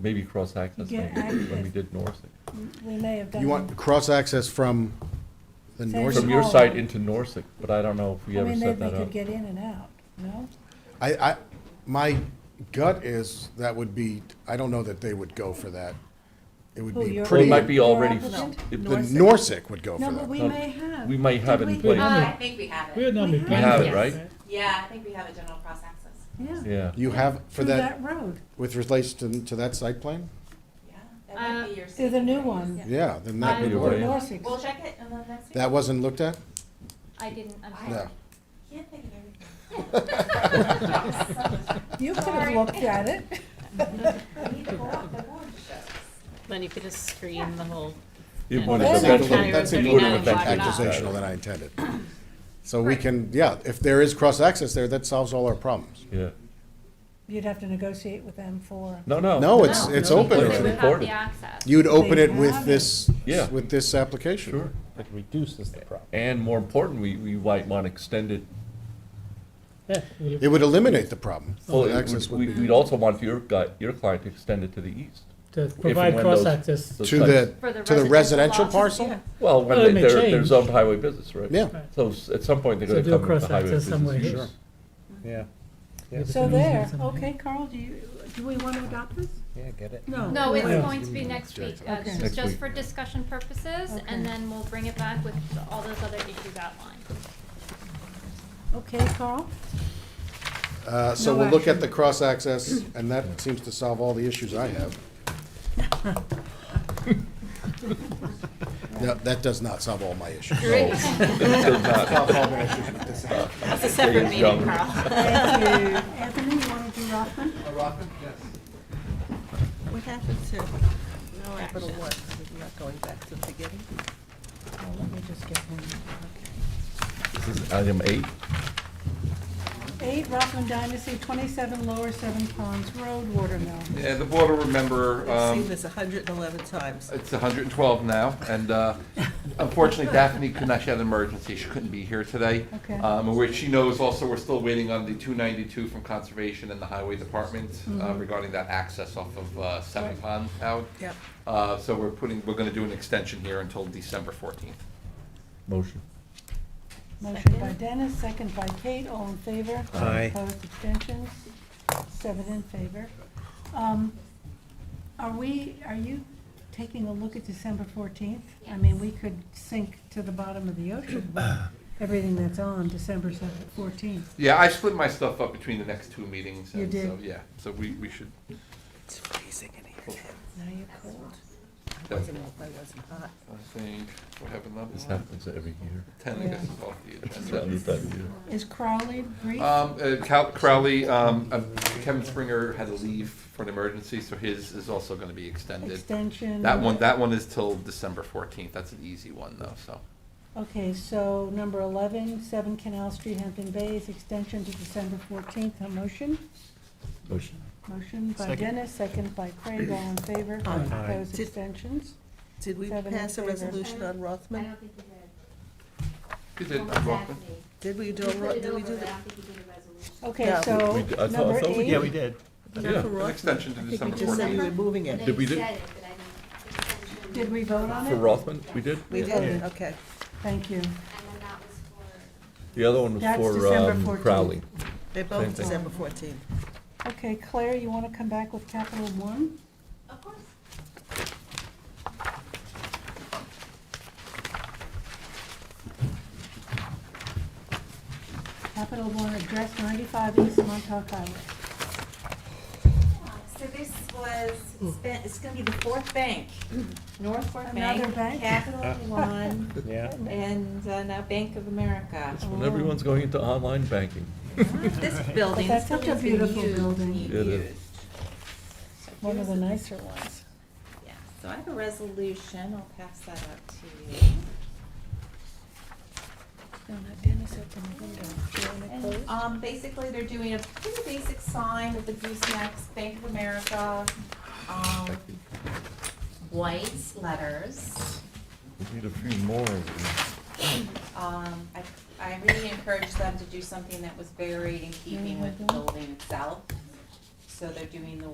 maybe cross-access Yeah, maybe, when we access. did Norsec. We may have done. You want cross-access from the north? There's From your all- side into Norsec, but I don't know if we I ever mean, set they that could up. get in and out, no? I, I, my gut is that would be, I don't know that they would go for that. It would Who, be your- Well, it pretty, might be Your already, applicant? if the the- Norsec would go for No, but that. we No, may have. we might have Did it in we? place. Uh, I think we have We it. had We Nami have we have it, Yes. right? Yeah, I think we have a general cross access. Yeah, Yeah, You have, for through that, that road. with relation to, to that site plan? Yeah, that Uh, might be your. Through the safety new rate, one. Yeah, then that I- would Either Or way. work. Norsec. We'll check it and then next week. That wasn't looked at? I didn't, I'm I- No. sorry. Can't think of everything. You could have Sorry. looked at it. We need the board, the board shows. Then you could just screen the whole. it Yeah. would Well, have That's That's eventually, included- actually- that's Thirty it nine would included have with and that eventually. blocked gotten accusational that out. I intended. So we can, yeah, if there is cross-access there, that solves all our problems. Yeah, You'd have to negotiate with them for. no, no. No, it's, No. it's No, open it's They would already. have recorded. the access. You'd open They it with have it. this, Yeah. with this application. Sure. It reduces the problem. And more important, we, we might want to extend it, Yeah, we- It would eliminate the problem. well, The access would we, be- we'd also want your guy, your client to extend it to the east. To and provide when those- cross-access. those To sites- the, For the to the residential residential lots, parcel? yeah. Well, when Well, it they- may they're, they're change. zoned highway business, right? Yeah. Right. So s- at some point, they're So gonna do a come with the highway cross-access business. somewhere here. Sure. Yeah. So there, okay, Carl, do you, do we want to adopt this? Yeah, get it. No. No, it's Yeah. going to be next week. Uh, Okay. This Next is just week. for discussion purposes, Okay. and then we'll bring it back with all those other issues outlined. Okay, Carl? Uh, So No we'll look at action. the cross-access, and that seems to solve all the issues I have. No, That does not solve all my issues. That's a separate meeting, Carl. Thank you. Oh, Anthony, you want to do Rothman? What happened to Capital One? We're not going back to the beginning? Oh, let me just get one. This is item eight. Eight, Rothman Dynasty, 27 Lower Seven Ponds Road, Watermill. Yeah, the board will remember, I've seen um, this hundred and eleven times. it's 112 now, and uh, unfortunately Daphne could not, she had an emergency, she couldn't be here today. Okay. Um, Which she knows also, we're still waiting on the 292 from Conservation and the Highway Department uh, regarding that access off of uh, Seven Pond out. Mm-hmm. Yep. Uh, So we're putting, we're going to do an extension here until December 14th. Motion. Motion by Dennis, second by Kate, all in favor? Aye. Opposed, abstentions, seven in favor. Um, Are we, are you taking a look at December fourteenth? I mean, we could sink to the bottom of the ocean with everything that's on December fourteenth. Yeah, I split my stuff up between the next two meetings. You and so, did. Yeah, so we we should, It's freezing in here. Now you're cold. I wasn't, I wasn't hot. I think, what happened This last month? happens every year. 10, I Yeah. guess, is off the It's agenda. about that year. Is Crowley brief? Um, uh, Cal- Crowley, um, uh, Kevin Springer had to leave for an emergency, so his is also gonna be extended. Extension? That one, that one is till December fourteenth, that's an easy one though, so. Okay, so number 11, 7 Canal Street, Hampton Bays, extension to December 14th. A motion? Motion. Motion by Dennis, second by Craig, all in favor. Opposed, Did- abstentions. Did we Seven in pass a favor. resolution on I Rothman? don't think we You did. did, I'm welcome. Did we do, a Ro- did we do the? think we did a resolution. Okay, No. so We- we- I thought- I number thought we- eight. Yeah, we did. not for Yeah, an Rothman. extension to December I think we just said we were 14th. moving it. Did we do- Did we vote on For it? Rothman, we did? We did, okay. Thank you. And then that was for. The other one was That's for December um, 14th. Crowley. They're Same both thing. December fourteenth. Okay, Claire, you want to come back with Capital One? Of course. Capital One, address 95 East Montauk Highway. So this was, Hmm. it's been, it's gonna be the fourth bank, North Fork Bank. Another bank? Capital One, Yeah. and uh, now Bank of America. That's when everyone's going into online banking. This building But that's is such a still being beautiful used. building. and It is. used. One of the nicer ones. Yeah, so I have a resolution, I'll pass that out to you. No, not Dennis, open the window. Do you want to And, close? um, basically, they're doing a pretty basic sign with the goosenecks, Bank of America, um, white letters. We need a few more of these. Um, I, I really encouraged Mm-hmm. them to do something that was very in keeping with the building itself. So they're doing the